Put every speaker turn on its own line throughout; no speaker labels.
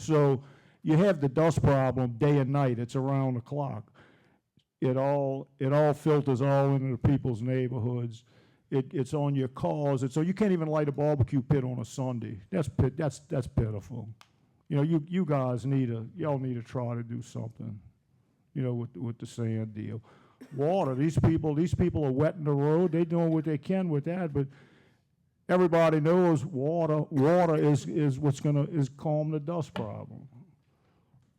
So you have the dust problem day and night, it's around the clock. It all, it all filters all into people's neighborhoods. It, it's on your cars, and so you can't even light a barbecue pit on a Sunday. That's pit, that's, that's pitiful. You know, you, you guys need a, y'all need to try to do something, you know, with, with the sand deal. Water, these people, these people are wetting the road, they doing what they can with that, but everybody knows water, water is, is what's gonna, is calm the dust problem.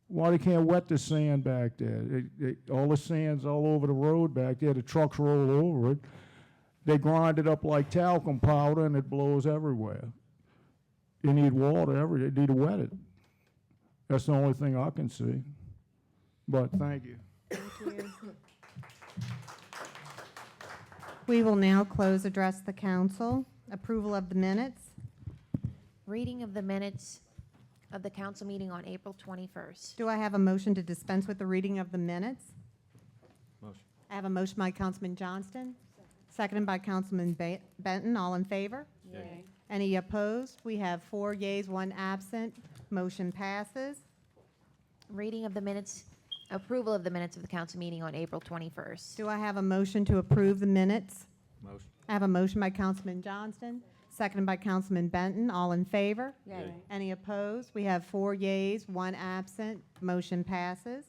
Why they can't wet the sand back there? It- it- all the sand's all over the road back there, the trucks roll over it. They grind it up like talcum powder and it blows everywhere. You need water every, you need to wet it. That's the only thing I can see. But thank you.
We will now close Address the Council. Approval of the minutes.
Reading of the minutes of the council meeting on April 21st.
Do I have a motion to dispense with the reading of the minutes?
Motion.
I have a motion by Councilman Johnston, seconded by Councilman Ba- Benton. All in favor?
Yay.
Any opposed? We have four yeas, one absent. Motion passes.
Reading of the minutes, approval of the minutes of the council meeting on April 21st.
Do I have a motion to approve the minutes?
Motion.
I have a motion by Councilman Johnston, seconded by Councilman Benton. All in favor?
Yay.
Any opposed? We have four yeas, one absent. Motion passes.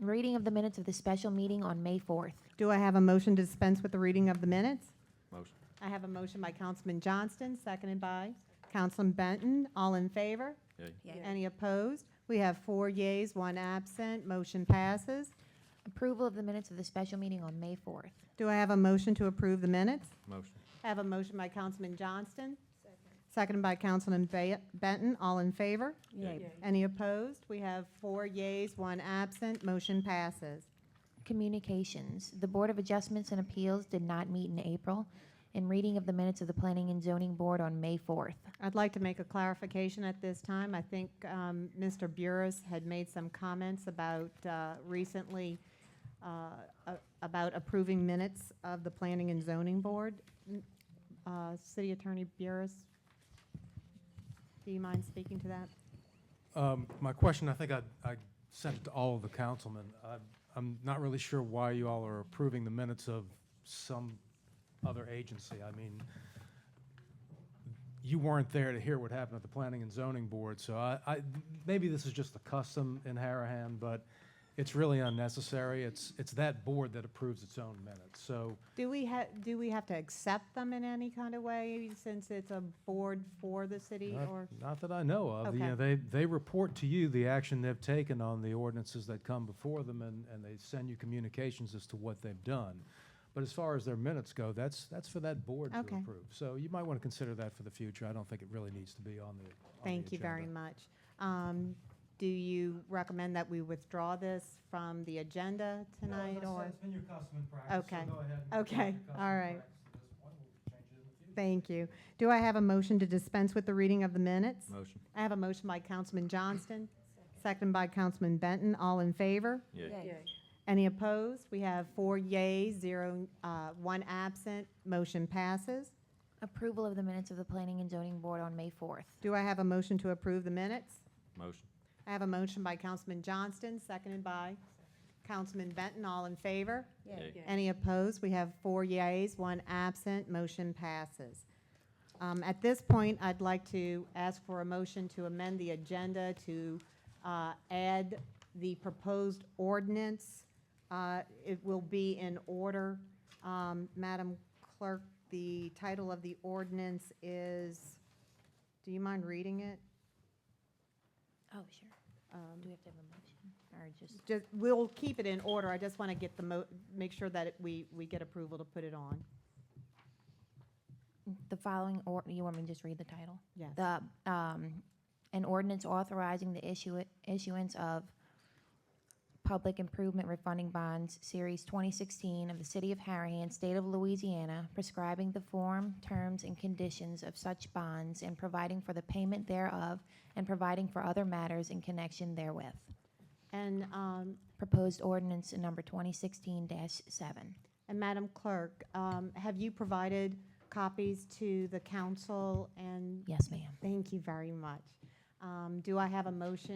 Reading of the minutes of the special meeting on May 4th.
Do I have a motion to dispense with the reading of the minutes?
Motion.
I have a motion by Councilman Johnston, seconded by Councilman Benton. All in favor?
Yay.
Any opposed? We have four yeas, one absent. Motion passes.
Approval of the minutes of the special meeting on May 4th.
Do I have a motion to approve the minutes?
Motion.
I have a motion by Councilman Johnston, seconded by Councilman Ba- Benton. All in favor?
Yay.
Any opposed? We have four yeas, one absent. Motion passes.
Communications. The Board of Adjustments and Appeals did not meet in April. And reading of the minutes of the Planning and Zoning Board on May 4th.
I'd like to make a clarification at this time. I think um, Mr. Burris had made some comments about uh, recently, uh, a- about approving minutes of the Planning and Zoning Board. N- uh, City Attorney Burris, do you mind speaking to that?
Um, My question, I think I I sent it to all of the councilmen. I- I'm not really sure why you all are approving the minutes of some other agency. I mean, you weren't there to hear what happened at the Planning and Zoning Board, so I, I- maybe this is just a custom in Harahan, but it's really unnecessary. It's, it's that board that approves its own minutes, so
Do we have, do we have to accept them in any kind of way since it's a board for the city
Not-
or?
Not that I know of. You know,
Okay.
they, they report to you the action they've taken on the ordinances that come before them, and, and they send you communications as to what they've done. But as far as their minutes go, that's, that's for that board to
Okay.
approve. So you might want to consider that for the future. I don't think it really needs to be on the, on the
Thank you very
agenda.
much. Um, Do you recommend that we withdraw this from the agenda tonight or?
been your custom and
so Okay. go ahead and keep Okay. your custom and All right. practice Thank you. Do I have a motion to dispense with the reading of the minutes?
Motion.
I have a motion by Councilman Johnston, second by Councilman Benton. All in favor?
Yay.
Any opposed? We have four yays, zero, uh, one absent. Motion passes.
Approval of the minutes of the Planning and Zoning Board on May 4th.
Do I have a motion to approve the minutes?
Motion.
I have a motion by Councilman Johnston, seconded by Councilman Benton. All in favor?
Yay.
Any opposed? We have four yays, one absent. Motion passes. Um, At this point, I'd like to ask for a motion to amend the agenda to uh, add the proposed ordinance. Uh, It will be in order. Um, Madam Clerk, the title of the ordinance is, do you mind reading it? Um,
Oh, sure. Do we have to have a motion or just?
Just- We'll keep it in order. I just want to get the, mo- make sure that it- we we get approval to put it on.
The following, or, you want me to just read the title?
Yes.
The, um, an ordinance authorizing the issue, issuance of public improvement refunding bonds, Series 2016 of the City of Harahan, State of Louisiana, prescribing the form, terms, and conditions of such bonds and providing for the payment thereof and providing for other matters in connection therewith.
And um,
Proposed ordinance number 2016-7.
And Madam Clerk, um, have you provided copies to the council and?
Yes, ma'am.
Thank you very much. Um, Do I have a motion